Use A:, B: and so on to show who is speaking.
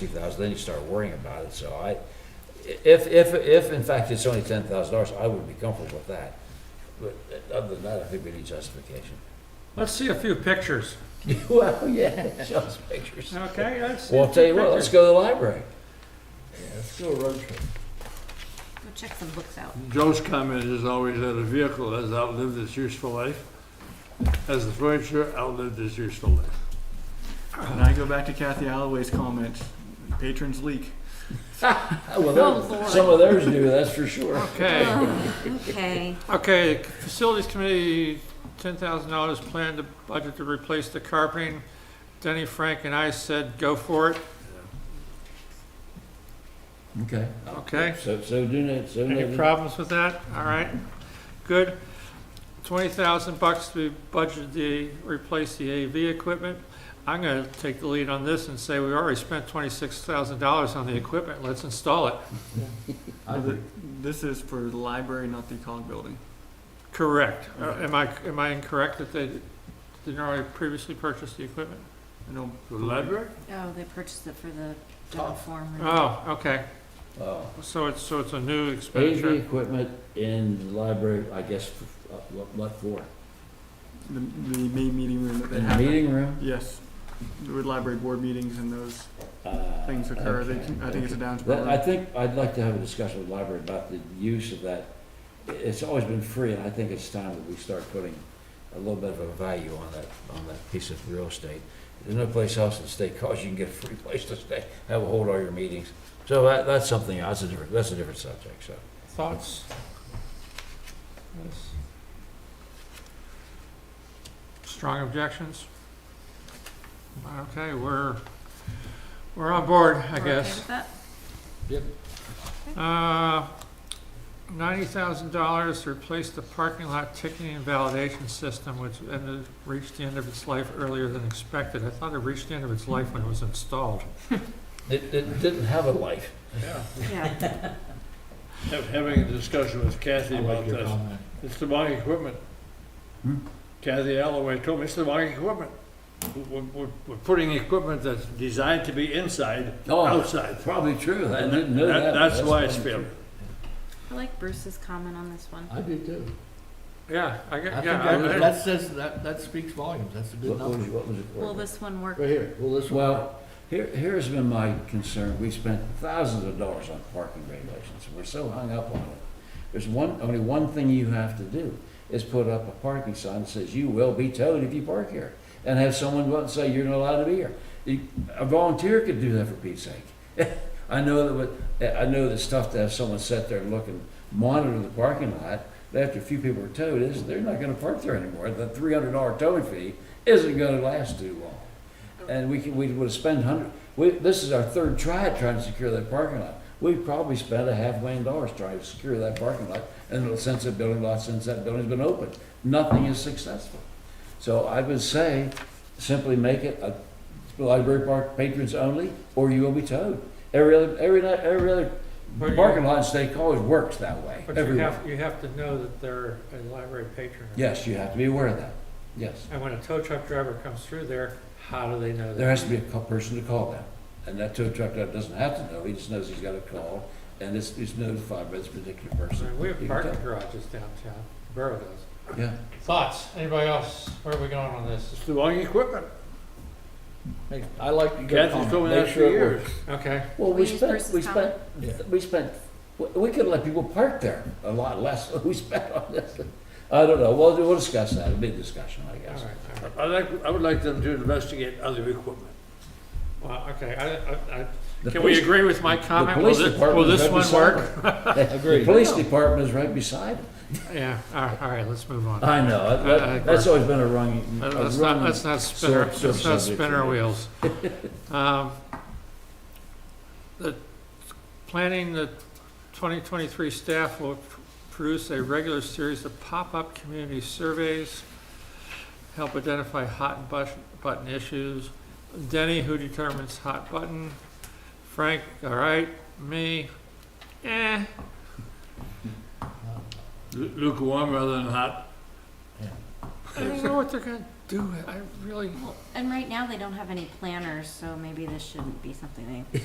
A: two thousand, then you start worrying about it, so I, if, if, if in fact it's only ten thousand dollars, I would be comfortable with that. But other than that, I think we need justification.
B: Let's see a few pictures,
A: Well, yeah, show us pictures.
B: okay? Let's see a
A: Well, I'll tell
B: few
A: you what, let's
B: pictures.
A: go to the library.
C: Let's do a road trip.
D: Go check some books out.
E: Joe's comment is always that a vehicle has outlived its useful life, as the furniture outlived its useful life.
F: And I go back to Kathy Alloway's comment, patrons leak.
A: Well,
D: Oh,
A: there-
D: Lord.
A: some of theirs do, that's for sure.
B: Okay,
D: Oh, Okay,
B: okay, Facilities Committee, ten thousand dollars planned to budget to replace the carpeting. Denny, Frank, and I said, go for it,
A: Okay.
B: okay?
A: So, so do not, so
B: Any
A: not.
B: problems with that? All right, good. Twenty thousand bucks to budget the, replace the AV equipment. I'm gonna take the lead on this and say we already spent twenty-six thousand dollars on the equipment, let's install it.
F: This is for the library, not the Cog building.
B: Correct. Uh, Am I, am I incorrect that they didn't already previously purchase the equipment?
F: I don't.
E: The library?
D: oh, they purchased it for the general form.
B: Oh, okay.
A: Oh.
B: So it's, so it's a new
A: AV
B: expenditure.
A: equipment in the library, I guess, f- uh, what, what for?
F: The, the main meeting room that they
A: In the
F: have.
A: meeting room?
F: Yes, with library board meetings and those
A: Uh,
F: things occur, they, can- I think it's a
A: okay.
F: Downs
A: That- I
F: program.
A: think, I'd like to have a discussion with the library about the use of that. I- It's always been free, and I think it's time that we start putting a little bit of a value on that, on that piece of real estate. There's no place else in the state college you can get a free place to stay, have, hold all your meetings. So that, that's something, that's a different, that's a different subject, so.
B: Thoughts? Yes. Strong objections? Okay, we're, we're on board, I guess. Uh, ninety thousand dollars to replace the parking lot ticketing and validation system, which ended, reached the end of its life earlier than expected. I thought it reached the end of its life when it was installed.
A: It, it didn't have a life.
E: Yeah.
D: Yeah,
E: Have- Having a discussion with Kathy about this. It's the wrong equipment.
A: Hmm?
E: Kathy Alloway told me it's the wrong equipment. We're, we're, we're putting equipment that's designed to be inside,
A: Oh.
E: outside.
A: Probably true, I
E: And
A: didn't know that.
E: that-
A: but
E: That's why it's
A: probably
E: failing.
A: true.
D: I like Bruce's comment on this one.
C: I do too.
B: Yeah, I get,
C: I think
B: yeah. I-
C: that,
B: I-
C: that says, that, that speaks volumes, that's a good
A: What what was,
C: number.
A: what was it?
D: Will this one work?
C: Right here, well, this one.
A: Well, here, here's been my concern, we spent thousands of dollars on parking regulations, and we're so hung up on it. There's one, only one thing you have to do, is put up a parking sign that says, you will be towed if you park here, and have someone go out and say, you're not allowed to be here. You- A volunteer could do that for Pete's sake. I know that, with- I know that stuff to have someone sit there and look and monitor the parking lot, after a few people are towed, is, they're not gonna park there anymore, the three hundred dollar towing fee isn't gonna last too long. And we could, we would spend hundred, we, this is our third try at trying to secure that parking lot. We probably spent a half million dollars trying to secure that parking lot, and since that building lot, since that building's been open, nothing is successful. So I would say, simply make it a library park patrons only, or you will be towed. Every other, every, night- every other
B: But you-
A: parking lot in state college works that way,
B: But you
A: everywhere.
B: have, you have to know that they're a library patron.
A: Yes, you have to be aware of that, yes.
B: And when a tow truck driver comes through there, how do they know
A: There
B: that?
A: has to be a co- person to call them, and that tow truck driver doesn't have to know, he just knows he's got a call, and it's, it's notified by this particular
B: I
A: person.
B: mean, We have
A: You can
B: parking
A: tell.
B: garages downtown, the borough does.
A: Yeah,
B: Thoughts? Anybody else? Where are we going on this?
E: It's the wrong equipment.
C: Hey, I like to go
E: Kathy's told
C: comment,
E: me that
C: make
E: for
C: sure it works.
E: years.
B: Okay,
A: well, we
D: We use
A: spent,
D: Bruce's
A: we
D: comment.
A: spent, we spent, we- we could let people park there a lot less than we spent on this. I don't know, we'll, we'll discuss that, it'll be a discussion, I
B: all right,
A: guess.
B: all right.
E: I like, I would like them to investigate other equipment.
B: Well, okay, I, I, I,
A: The
B: can we
A: police-
B: agree with my comment? Will
A: police
B: thi- Will
A: department is
B: this
A: right
B: one work?
A: beside it. The police department is right beside it.
B: Yeah, all right, all right, let's move on.
A: I know,
B: I- I
A: that- that's
B: agree.
A: always been a wrong. a
B: Let- Let's not,
A: wrong-
B: let's not spin our,
A: sub-
B: let's not spin our
A: subject.
B: wheels. Um, The, planning the 2023 staff will pr- produce a regular series of pop-up community surveys, help identify hot and bus- button issues. Denny, who determines hot button? Frank, all right, me, eh,
E: Lu- Lukewarm rather than hot.
B: I don't know what they're gonna do, I really.
D: And right now, they don't have any planners, so maybe this shouldn't be something they